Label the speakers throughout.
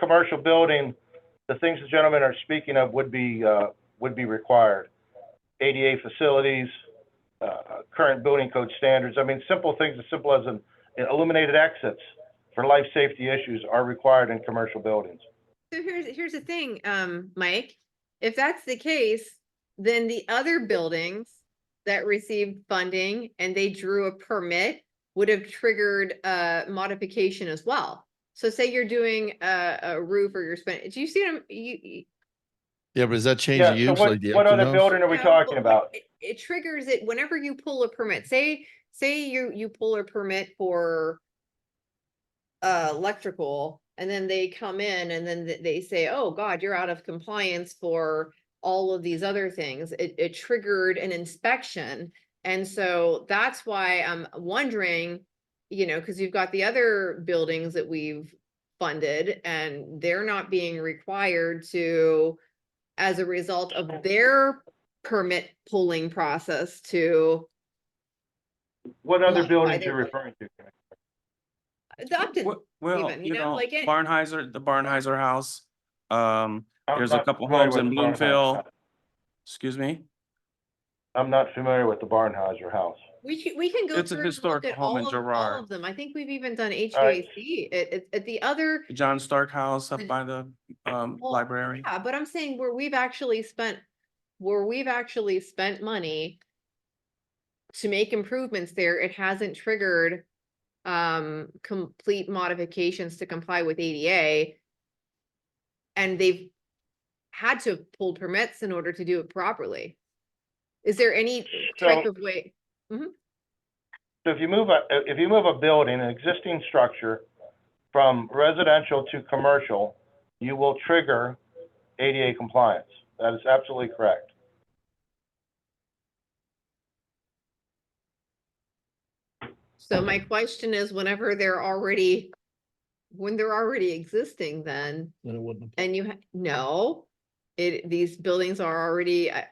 Speaker 1: commercial building, the things the gentlemen are speaking of would be, uh, would be required. ADA facilities, uh, current building code standards. I mean, simple things as simple as an illuminated exits for life safety issues are required in commercial buildings.
Speaker 2: So here's, here's the thing, um, Mike, if that's the case, then the other buildings that received funding and they drew a permit would have triggered a modification as well. So say you're doing a, a roof or you're spending, do you see them, you, you-
Speaker 3: Yeah, but does that change
Speaker 1: Yeah,
Speaker 3: the
Speaker 1: so
Speaker 3: use?
Speaker 1: what,
Speaker 3: like the
Speaker 1: what
Speaker 3: empty
Speaker 1: other
Speaker 3: house?
Speaker 1: building are we
Speaker 2: No,
Speaker 1: talking
Speaker 2: but
Speaker 1: about?
Speaker 2: It it triggers it whenever you pull a permit, say, say you, you pull a permit for. Uh, electrical, and then they come in and then th- they say, oh, God, you're out of compliance for all of these other things. It, it triggered an inspection. And so that's why I'm wondering, you know, because you've got the other buildings that we've funded and they're not being required to, as a result of their permit pulling process to
Speaker 1: What other
Speaker 2: Like,
Speaker 1: buildings
Speaker 2: either
Speaker 1: you're
Speaker 2: way.
Speaker 1: referring to?
Speaker 2: adopt it.
Speaker 4: Well- Well,
Speaker 2: even, you
Speaker 4: you
Speaker 2: know,
Speaker 4: know,
Speaker 2: like it-
Speaker 4: Barnheiser, the Barnheiser House, um,
Speaker 1: I'm
Speaker 4: There's a
Speaker 1: not
Speaker 4: couple
Speaker 1: familiar
Speaker 4: homes
Speaker 1: with
Speaker 4: in
Speaker 1: the Barnheiser
Speaker 4: Bloomfield.
Speaker 1: house.
Speaker 4: excuse me,
Speaker 1: I'm not familiar with the Barnheiser house.
Speaker 2: We can, we can go
Speaker 4: It's
Speaker 2: through
Speaker 4: a
Speaker 2: and look
Speaker 4: historic
Speaker 2: at
Speaker 4: home
Speaker 2: all
Speaker 4: in
Speaker 2: of, all
Speaker 4: Girard.
Speaker 2: of them. I think we've even done
Speaker 1: right.
Speaker 2: HVAC at, at, at the other.
Speaker 4: the John Stark House up
Speaker 2: The-
Speaker 4: by the, um,
Speaker 2: Well,
Speaker 4: library.
Speaker 2: Yeah, but I'm saying where we've actually spent, where we've actually spent money to make improvements there, it hasn't triggered um, complete modifications to comply with ADA. And they've had to pull permits in order to do it properly. Is there any type
Speaker 1: So-
Speaker 2: of way?
Speaker 1: So if you move a, if you move a building, an existing structure from residential to commercial, you will trigger ADA compliance. That is absolutely correct.
Speaker 2: So my question is whenever they're already, when they're already existing, then
Speaker 3: Then it wouldn't. apply.
Speaker 2: And you, ha- no, it, these buildings are already, I-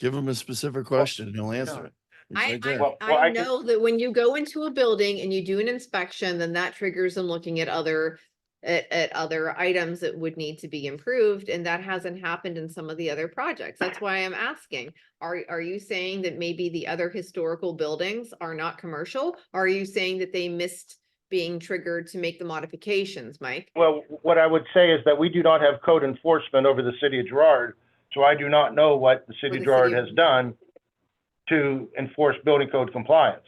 Speaker 3: Give him a specific question and he'll answer
Speaker 4: yeah.
Speaker 3: it. He's
Speaker 2: I,
Speaker 3: right there.
Speaker 2: I,
Speaker 1: Well- well,
Speaker 2: I
Speaker 1: I can-
Speaker 2: know that when you go into a building and you do an inspection, then that triggers them looking at other, at, at other items that would need to be improved, and that hasn't happened in some of the other projects. That's why I'm asking. Are, are you saying that maybe the other historical buildings are not commercial? Are you saying that they missed being triggered to make the modifications, Mike?
Speaker 1: Well, what I would say is that we do not have code enforcement over the city of Gerard, so I do not know what the
Speaker 2: the
Speaker 1: city
Speaker 2: city
Speaker 1: of Gerard
Speaker 2: of-
Speaker 1: has done to enforce building code compliance.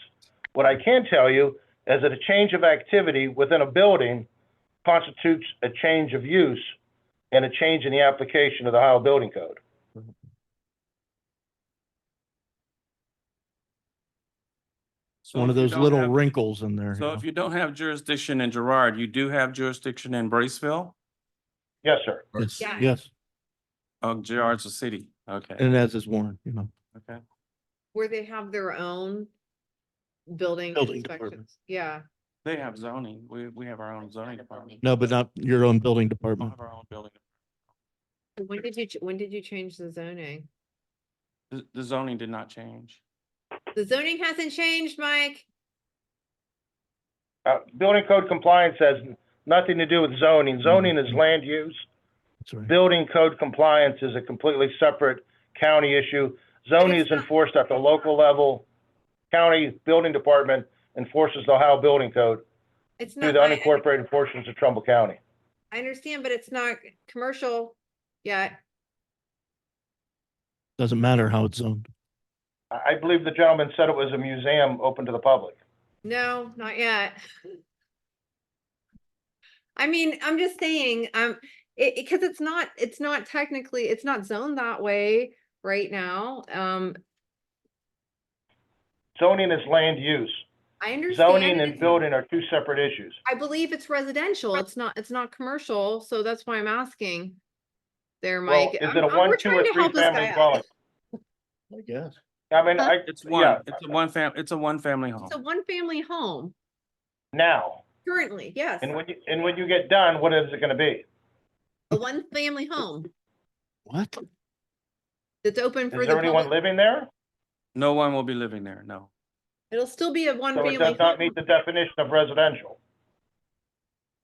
Speaker 1: What I can tell you is that a change of activity within a building constitutes a change of use and a change in the application of the Ohio Building Code.
Speaker 3: It's
Speaker 4: So
Speaker 3: One
Speaker 4: if
Speaker 3: of
Speaker 4: you
Speaker 3: those
Speaker 4: don't
Speaker 3: little
Speaker 4: have-
Speaker 3: wrinkles in there. you
Speaker 4: So
Speaker 3: know.
Speaker 4: if you don't have jurisdiction in Gerard, you do have jurisdiction in Braceville,
Speaker 1: Yes, sir.
Speaker 3: Yes,
Speaker 2: Yeah.
Speaker 3: yes.
Speaker 4: oh, Gerard's a city, okay,
Speaker 3: And as is Warren, you know.
Speaker 4: okay.
Speaker 2: Where they have their own building
Speaker 3: Building
Speaker 2: inspections,
Speaker 3: department.
Speaker 2: yeah.
Speaker 4: They have zoning, we, we have our own zoning department.
Speaker 3: No, but not your own building
Speaker 4: We don't
Speaker 3: department.
Speaker 4: have our own building.
Speaker 2: So When did you, ch- when did you change the zoning?
Speaker 4: The, the zoning did not change.
Speaker 2: The zoning hasn't changed, Mike.
Speaker 1: Uh, building code compliance has nothing to do with zoning. Zoning is land use.
Speaker 3: That's right.
Speaker 1: Building code compliance is a completely separate county issue. Zoning
Speaker 2: it's
Speaker 1: is
Speaker 2: not-
Speaker 1: enforced at the local level. County Building Department enforces the Ohio Building Code
Speaker 2: It's
Speaker 1: through
Speaker 2: not,
Speaker 1: the
Speaker 2: I,
Speaker 1: unincorporated portions of Trumbull County.
Speaker 2: I understand, but it's not commercial yet.
Speaker 3: Doesn't matter how it's zoned.
Speaker 1: I I believe the gentleman said it was a museum open to the public.
Speaker 2: No, not yet. I mean, I'm just saying, um, it, it, cause it's not, it's not technically, it's not zoned that way right now. Um,
Speaker 1: Zoning is land use.
Speaker 2: I understand.
Speaker 1: Zoning
Speaker 2: it
Speaker 1: and
Speaker 2: is-
Speaker 1: building are two separate issues.
Speaker 2: I believe it's residential. It's not, it's not commercial, so that's why I'm asking. There,
Speaker 1: Well,
Speaker 2: Mike.
Speaker 1: is
Speaker 2: I'm-
Speaker 1: it a
Speaker 2: I'm-
Speaker 1: one,
Speaker 2: we're
Speaker 1: two,
Speaker 2: trying
Speaker 1: or
Speaker 2: to help this guy
Speaker 1: three-family
Speaker 2: out.
Speaker 1: dwelling?
Speaker 3: I guess.
Speaker 1: I mean, I,
Speaker 4: It's
Speaker 1: yeah,
Speaker 4: one, it's a one fam, it's a one family home.
Speaker 2: It's a one-family home
Speaker 1: now.
Speaker 2: currently, yes,
Speaker 1: And when you, and when you get done, what is it gonna be?
Speaker 2: a one-family home
Speaker 3: What?
Speaker 2: that's open for
Speaker 1: Is
Speaker 2: the
Speaker 1: there anyone
Speaker 2: public.
Speaker 1: living there?
Speaker 4: No one will be living there, no.
Speaker 2: It'll still be a
Speaker 1: So
Speaker 2: one-family
Speaker 1: it does not
Speaker 2: home.
Speaker 1: meet the definition of residential.